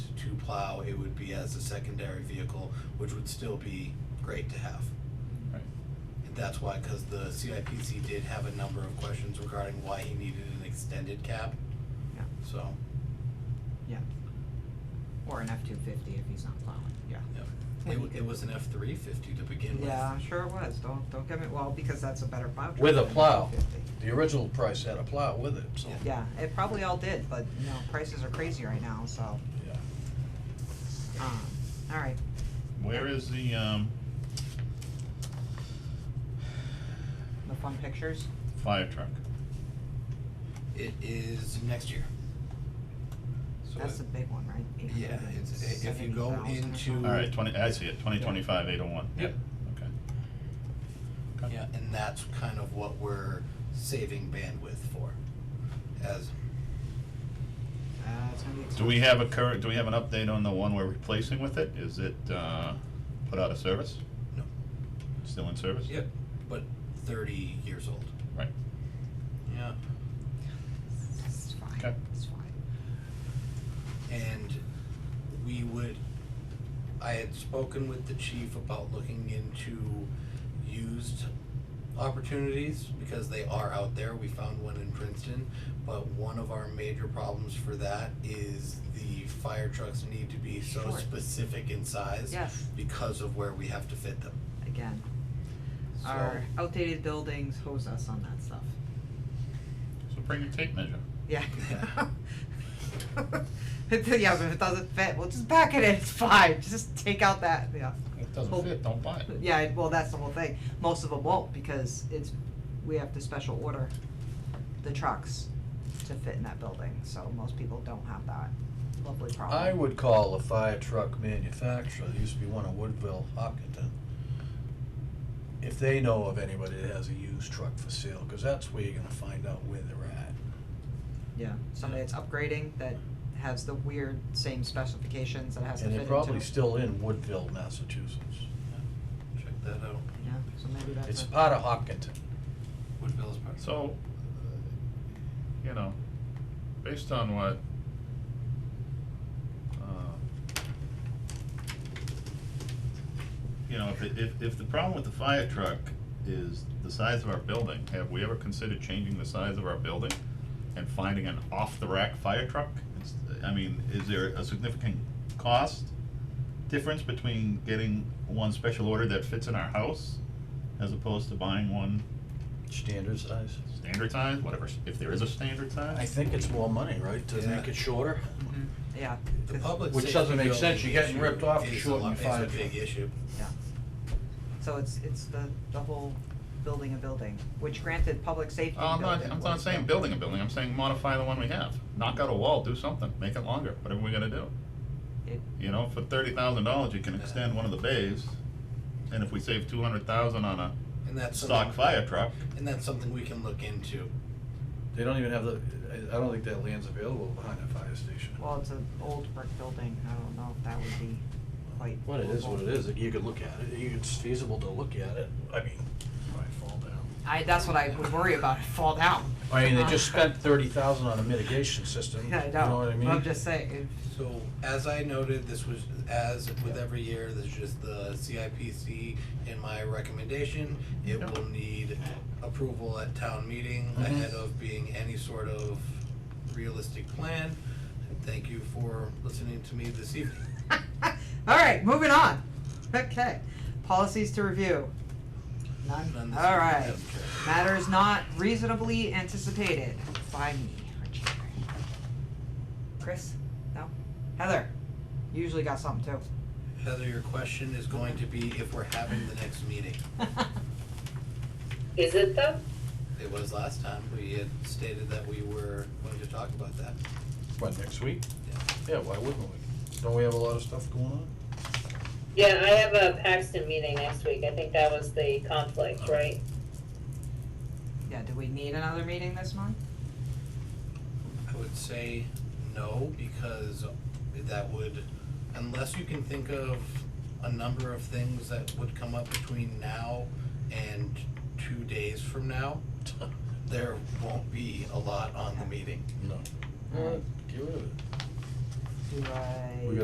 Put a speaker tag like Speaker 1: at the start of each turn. Speaker 1: plow, it would be as a secondary vehicle, which would still be great to have.
Speaker 2: Right.
Speaker 1: And that's why, because the CIPC did have a number of questions regarding why he needed an extended cab.
Speaker 3: Yeah.
Speaker 1: So,
Speaker 3: yeah. Or an F two fifty if he's not plowing, yeah.
Speaker 1: yeah,
Speaker 3: Well,
Speaker 1: it,
Speaker 3: you
Speaker 1: wa- it
Speaker 3: could-
Speaker 1: was an F three fifty to begin with.
Speaker 3: Yeah, sure it was, don't, don't get me, well, because that's a better plow truck.
Speaker 4: With a
Speaker 3: than an
Speaker 4: plow.
Speaker 3: F-250.
Speaker 4: The original price had a plow with it, so.
Speaker 1: Yeah.
Speaker 3: Yeah, it probably all did, but, you know, prices are crazy right now, so,
Speaker 4: Yeah.
Speaker 3: um, alright,
Speaker 2: Where is the, um,
Speaker 3: the fun pictures,
Speaker 2: fire truck?
Speaker 1: It is next year. So
Speaker 3: that's the
Speaker 1: it-
Speaker 3: big one, right?
Speaker 1: Yeah, it's- i- if you go
Speaker 3: 870,000 or
Speaker 1: into-
Speaker 3: something.
Speaker 2: Alright, twenty, I see it, twenty twenty-five, eight oh one.
Speaker 1: Yep.
Speaker 2: Okay. Okay.
Speaker 1: Yeah, and that's kind of what we're saving bandwidth for, as,
Speaker 3: Uh, it's gonna be expensive.
Speaker 2: Do we have a current, do we have an update on the one we're replacing with it? Is it, uh, put out of service?
Speaker 1: no,
Speaker 2: Still in service?
Speaker 1: yep, but thirty years old.
Speaker 2: Right.
Speaker 1: Yeah.
Speaker 3: It's fine,
Speaker 2: Okay.
Speaker 3: it's fine.
Speaker 1: And we would, I had spoken with the chief about looking into used opportunities because they are out there. We found one in Princeton. But one of our major problems for that is the fire trucks need to be so
Speaker 3: Sure.
Speaker 1: specific in size
Speaker 3: Yes.
Speaker 1: because of where we have to fit them.
Speaker 3: Again,
Speaker 1: So-
Speaker 3: our outdated buildings hose us on that stuff,
Speaker 2: So bring your tape measure.
Speaker 3: yeah. It- Yeah, but if it doesn't fit, we'll just back it in, it's fine, just take out that, yeah.
Speaker 2: If it
Speaker 3: Well-
Speaker 2: doesn't fit, don't buy it.
Speaker 3: Yeah, it- well, that's the whole thing. Most of them won't because it's, we have to special order the trucks to fit in that building, so most people don't have that lovely problem.
Speaker 4: I would call a fire truck manufacturer, there used to be one in Woodville, Hopkinton. If they know of anybody that has a used truck for sale, cause that's where you're gonna find out where they're at.
Speaker 3: Yeah, somebody that's upgrading that has the weird same specifications that has to fit
Speaker 4: And they're
Speaker 3: into.
Speaker 4: probably still in Woodville, Massachusetts.
Speaker 1: Check that out.
Speaker 3: Yeah, so maybe that's.
Speaker 4: It's
Speaker 3: a-
Speaker 4: part of Hopkinton.
Speaker 1: Woodville is part of-
Speaker 2: So, you know, based on what, uh, you know, if, it- if, if the problem with the fire truck is the size of our building, have we ever considered changing the size of our building and finding an off-the-rack fire truck? It's, I mean, is there a significant cost difference between getting one special order that fits in our house as opposed to buying one
Speaker 4: Standard size.
Speaker 2: standard size, whatever, if there is a standard size.
Speaker 4: I think it's more money, right, to
Speaker 1: Yeah.
Speaker 4: make it shorter?
Speaker 3: Mhm, yeah.
Speaker 4: Oh,
Speaker 1: The
Speaker 3: it's-
Speaker 1: public
Speaker 4: Which
Speaker 1: safety
Speaker 4: doesn't make sense.
Speaker 1: building
Speaker 4: You're getting
Speaker 1: issue
Speaker 4: ripped off for
Speaker 1: is a
Speaker 4: shorting
Speaker 1: lot-
Speaker 4: the fire
Speaker 1: It's a big
Speaker 4: truck.
Speaker 1: issue.
Speaker 3: Yeah. So it's, it's the, the whole building a building, which granted, public safety
Speaker 2: Oh, I'm not,
Speaker 3: building
Speaker 2: I'm
Speaker 3: was
Speaker 2: not saying
Speaker 3: built-
Speaker 2: building a building, I'm saying modify the one we have, knock out a wall, do something, make it longer, whatever we gotta do.
Speaker 3: It,
Speaker 2: You know, for thirty thousand dollars, you can extend one of the bays, and if we save two hundred thousand on a
Speaker 1: And that's
Speaker 2: stock
Speaker 1: something-
Speaker 2: fire truck,
Speaker 1: And that's something we can look into.
Speaker 4: They don't even have the, I- I don't think that land's available behind that fire station.
Speaker 3: Well, it's an old brick building, I don't know if that would be quite.
Speaker 4: What it is,
Speaker 3: doable.
Speaker 4: what it is, you could look at it, You- it's feasible to look at it, I mean. Might fall down.
Speaker 3: I, that's what I would worry about, it fall down.
Speaker 4: I mean, they just spent thirty thousand on a mitigation system, you
Speaker 3: Yeah, I
Speaker 4: know what I mean?
Speaker 3: know, I'm just saying, if-
Speaker 1: So as I noted, this was, as with every year, this is just the CIPC in my recommendation. It
Speaker 2: Yeah.
Speaker 1: will need approval at town meeting
Speaker 3: Mm-hmm.
Speaker 4: Mhm.
Speaker 1: ahead of being any sort of realistic plan. And Thank you for listening to me this evening.
Speaker 3: All right, moving on. Okay, policies to review. None.
Speaker 1: None this
Speaker 3: All
Speaker 1: evening.
Speaker 3: right. Matters not reasonably anticipated by me or Jerry. Chris? No. Heather? Usually got something
Speaker 1: Heather, your question is going to be if we're having the next meeting.
Speaker 3: too.
Speaker 5: Is it though?
Speaker 1: It was last time, we had stated that we were going to talk about that.
Speaker 4: What, next week?
Speaker 1: Yeah.
Speaker 4: Yeah, why wouldn't we? Don't we have a lot of stuff going on?
Speaker 5: Yeah, I have a Paxton meeting next week. I think that was the conflict, right?
Speaker 3: Yeah, do we need another meeting this month?
Speaker 1: I would say no, because that would, unless you can think of a number of things that would come up between now and two days from now, there won't be a lot on the meeting.
Speaker 4: No.
Speaker 3: All right.
Speaker 4: Get rid of it.
Speaker 3: Do I?
Speaker 4: Uh, We got